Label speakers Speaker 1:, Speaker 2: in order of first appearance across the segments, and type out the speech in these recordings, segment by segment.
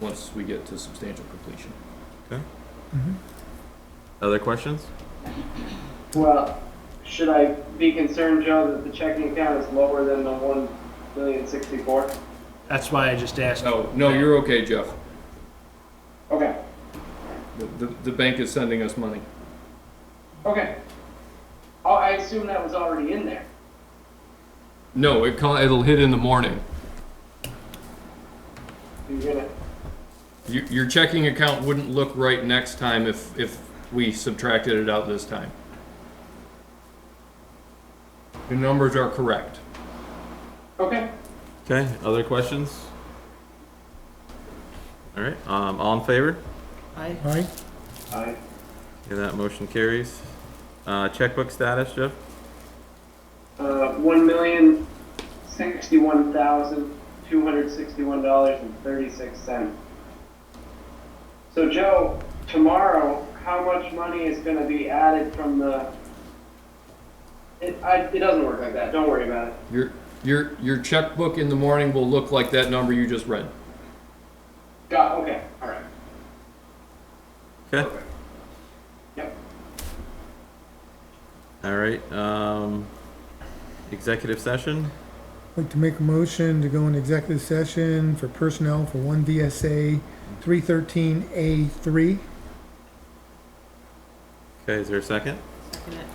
Speaker 1: once we get to substantial completion.
Speaker 2: Other questions?
Speaker 3: Well, should I be concerned, Joe, that the checking account is lower than the one million sixty-four?
Speaker 4: That's why I just asked.
Speaker 1: No, no, you're okay, Jeff.
Speaker 3: Okay,
Speaker 1: The, the, the bank is sending us money.
Speaker 3: okay. Oh, I assume that was already in there.
Speaker 1: No, it, co- it'll hit in the morning.
Speaker 3: You're gonna,
Speaker 1: Your, your checking account wouldn't look right next time if, if we subtracted it out this time. The numbers are correct.
Speaker 3: okay.
Speaker 2: Okay, other questions? All right, um, all in favor?
Speaker 5: I,
Speaker 4: Aye.
Speaker 3: I,
Speaker 2: Yeah, that motion carries. Uh, checkbook status, Jeff?
Speaker 3: uh, one million sixty-one thousand two hundred sixty-one dollars and thirty-six cents. So Joe, tomorrow, how much money is gonna be added from the? It, I, it doesn't work like that, don't worry about it.
Speaker 1: Your, your, your checkbook in the morning will look like that number you just read.
Speaker 3: Got, okay, all right.
Speaker 2: Okay,
Speaker 3: Yep.
Speaker 2: all right, um, executive session?
Speaker 6: I'd like to make a motion to go into executive session for personnel for one VSA three thirteen A three.
Speaker 2: Okay, is there a second?
Speaker 5: second it.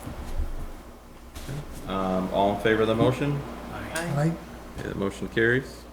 Speaker 2: Um, all in favor of the motion?
Speaker 5: I,
Speaker 6: Aye.
Speaker 2: Yeah, the motion carries.